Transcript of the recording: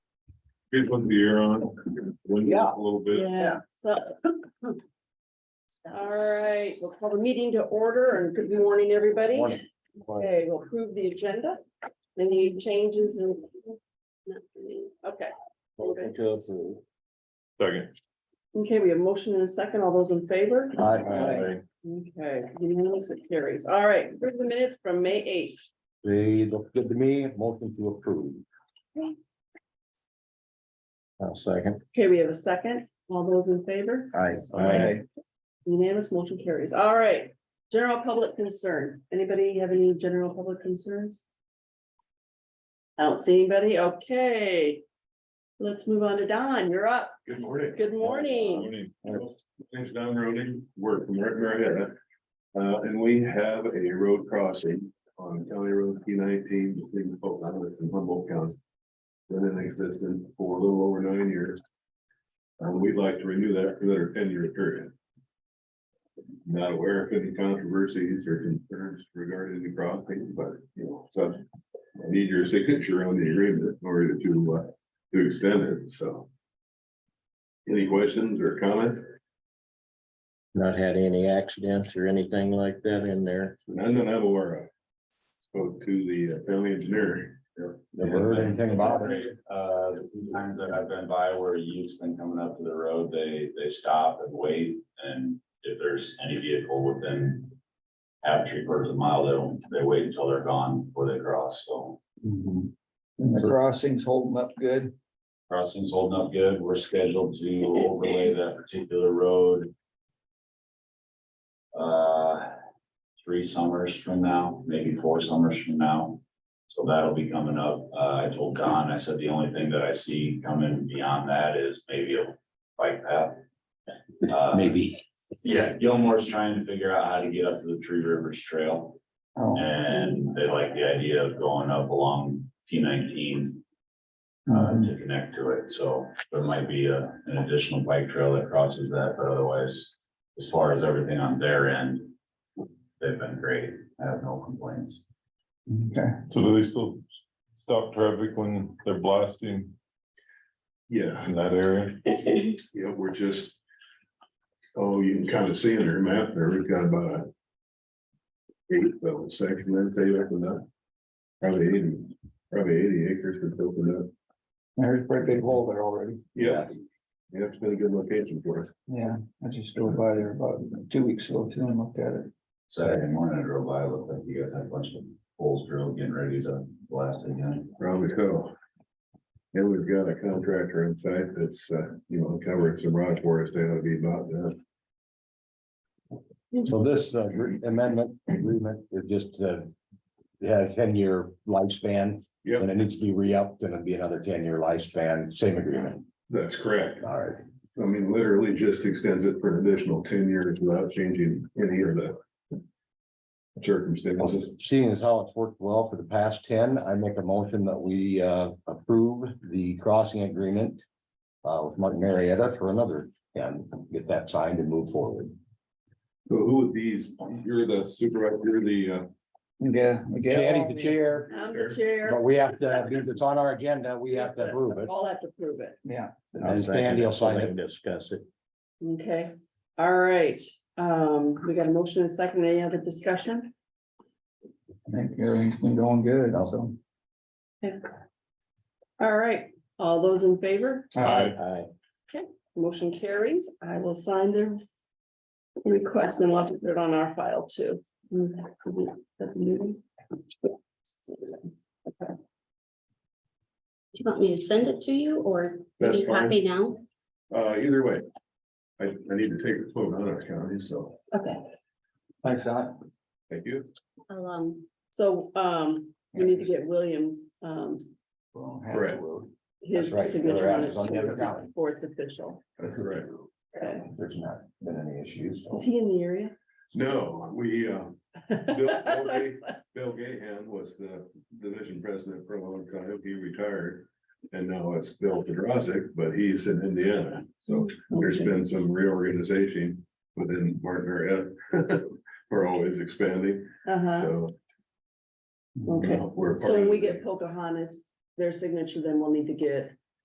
Here's one the air on. Windows Yeah. A little bit. Yeah, so. All right, we'll call the meeting to order and good morning, everybody. Morning. Okay, we'll approve the agenda. Any changes and? Okay, Motion to approve. Second. okay, we have motion and a second. All those in favor? Aye. Okay, unanimous it carries. All right, approve the minutes from May eighth. They look good to me, motion to approve. I'll second. Okay, we have a second. All those in favor? Aye. Aye. Unanimous motion carries. All right. General public concern. Anybody have any general public concerns? I don't see anybody. Okay. Let's move on to Don. You're up. Good morning. Good morning. Morning. Name's Don Roding, work from Red Marietta. Uh, and we have a road crossing on County Road P nineteen between Fulton Island and Humboldt County. Been in existence for a little over nine years. And we'd like to renew that for another ten year period. Not aware of any controversies or concerns regarding the crossing, but you know, so. I Need your signature on the agreement in order to, uh, to extend it, so. Any questions or comments? Not had any accidents or anything like that in there. None that I'm aware of. Spoke to the uh, county engineer. Never heard anything about it. Uh, the few times that I've been by where youth's been coming up to the road, they, they stop and wait, and if there's any vehicle within. Half three quarters of a mile, they don't, they wait until they're gone before they cross, so Mm-hmm. The crossing's holding up good. crossing's holding up good, we're scheduled to overlay that particular road. Uh, three summers from now, maybe four summers from now. So that'll be coming up. Uh, I told Don, I said, the only thing that I see coming beyond that is maybe a bike path. Uh, Maybe. Yeah, Gilmore's trying to figure out how to get up to the Tree Rivers Trail Oh, and they like the idea of going up along P nineteen uh, mhm. to connect to it, so there might be a, an additional bike trail that crosses that, but otherwise, as far as everything on their end, they've been great, I have no complaints. Okay. So do they still stop traffic when they're blasting Yeah, in that area? yeah, we're just. Oh, you can kind of see in their map there, we've got about. a Eight, well, section that they opened up. Probably eighty, probably eighty acres that's opened up. There's a pretty big hole there already. Yeah. Yeah, it's been a good location for us. Yeah, I just drove by there about two weeks ago too and looked at it. Saturday morning, I drove by, it looked like you guys had a bunch of holes drilled, getting ready to blast again. Probably so. And we've got a contractor on site that's, uh, you know, covering some rock for us, that'll be about uh, that. hmm. So this uh, amendment agreement is just uh. It had a ten-year lifespan. Yep. And it needs to be re-upped and it'd be another ten-year lifespan, same agreement. That's correct. All right. I mean, literally just extends it for an additional ten years without changing any of the. Well, Circumstances, Seeing as how it's worked well for the past ten, I make a motion that we uh approve the crossing agreement. Uh, with Martin Marietta for another ten, get that signed and move forward. so who would these, you're the supervisor, you're the, uh, Yeah, again, Danny's the chair, I'm the chair. but we have to, because it's on our agenda, we have to approve it. All have to prove it. yeah. And Sandy will sign it. Discuss it. Okay, all right. Um, we got a motion and a second. Any other discussion? I think everything's been going good also. All right, all those in favor? Aye. Aye. Motion carries. I will sign the request and we'll have to put it on our file too. Okay. Do you want me to send it to you or can that's you fine, copy now? uh, either way. I, I need to take a quote on our county, so, Okay, Thanks, Al. thank you. I'll, um, So um, we need to get Williams, um, Well, half the Right. road. his That's right. signature on it It's on the other too, copy. before it's official. That's correct. Okay. There's not been any issues. Is he in the area? No, we, uh, That's what I was- Bill Gahan was the division president for a long time, he retired. And now it's Bill Pedrosic, but he's in Indiana, so there's been some reorganization within Martin Marietta. We're always expanding, Uh-huh, so. okay. we're a part So when of we it. get Pocahontas, their signature, then we'll need to get